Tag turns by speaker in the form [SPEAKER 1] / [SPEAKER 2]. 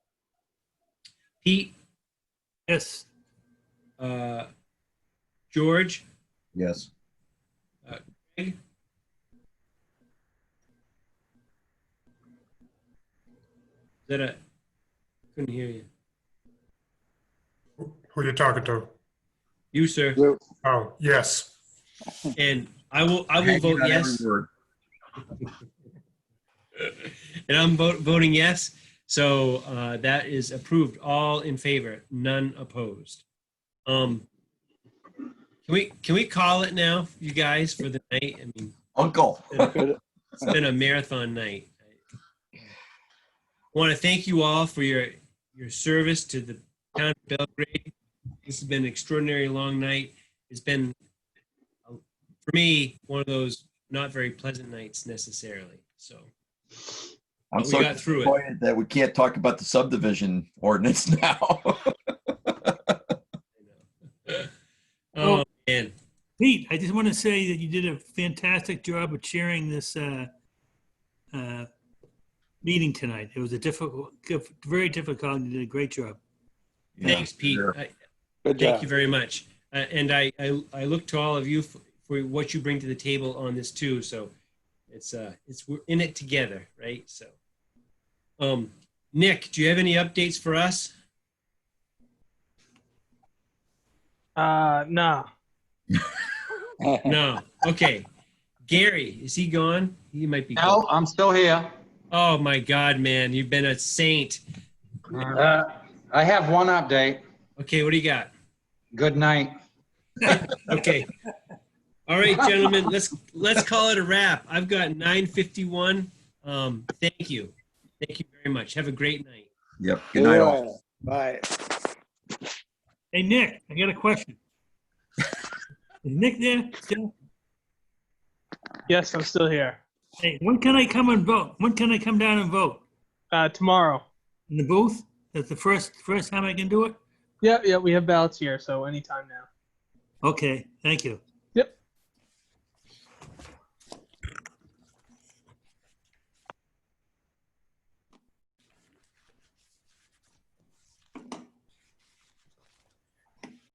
[SPEAKER 1] Pete? Yes. Uh, George?
[SPEAKER 2] Yes.
[SPEAKER 1] Is that a, couldn't hear you.
[SPEAKER 3] Who you talking to?
[SPEAKER 1] You, sir.
[SPEAKER 3] Oh, yes.
[SPEAKER 1] And I will, I will vote yes. And I'm vo- voting yes. So uh, that is approved. All in favor, none opposed. Um, Can we, can we call it now, you guys, for the night? I mean,
[SPEAKER 2] Uncle.
[SPEAKER 1] it's been a marathon night. I want to thank you all for your your service to the town of Belgrade. This has been an extraordinary long night. It's been uh, for me one of those not very pleasant nights necessarily. So
[SPEAKER 2] I'm
[SPEAKER 1] But we
[SPEAKER 2] so
[SPEAKER 1] got through it.
[SPEAKER 2] disappointed that we can't talk about the subdivision ordinance now.
[SPEAKER 1] oh man,
[SPEAKER 4] Pete, I just want to say that you did a fantastic job of chairing this uh, uh, meeting tonight. It was a difficult, diff- very difficult, and you did a great job.
[SPEAKER 1] thanks, Pete.
[SPEAKER 2] sure.
[SPEAKER 1] I-
[SPEAKER 5] Good
[SPEAKER 1] Thank
[SPEAKER 5] job.
[SPEAKER 1] you very much. Uh, And I, I, I look to all of you for, for what you bring to the table on this too. So it's, uh, it's, we're in it together, right? So, um, Nick, do you have any updates for us?
[SPEAKER 6] Uh, no.
[SPEAKER 1] No. Okay. Gary, is he gone? He might be.
[SPEAKER 7] No,
[SPEAKER 1] gone.
[SPEAKER 7] I'm still here.
[SPEAKER 1] Oh my God, man. You've been a saint.
[SPEAKER 7] Uh, I have one update.
[SPEAKER 1] Okay. What do you got?
[SPEAKER 7] Good night.
[SPEAKER 1] Okay. All right, gentlemen, let's, let's call it a wrap. I've got nine fifty-one. Um, thank you. Thank you very much. Have a great night.
[SPEAKER 2] Yep. Good night all.
[SPEAKER 5] Yeah. Bye.
[SPEAKER 4] Hey, Nick, I got a question. Is Nick there? still?
[SPEAKER 6] Yes, I'm still here.
[SPEAKER 4] Hey, when can I come and vote? When can I come down and vote?
[SPEAKER 6] Uh, tomorrow.
[SPEAKER 4] In the booth? That's the first, first time I can do it?
[SPEAKER 6] Yeah, yeah, we have ballots here, so anytime now.
[SPEAKER 4] Okay, thank you.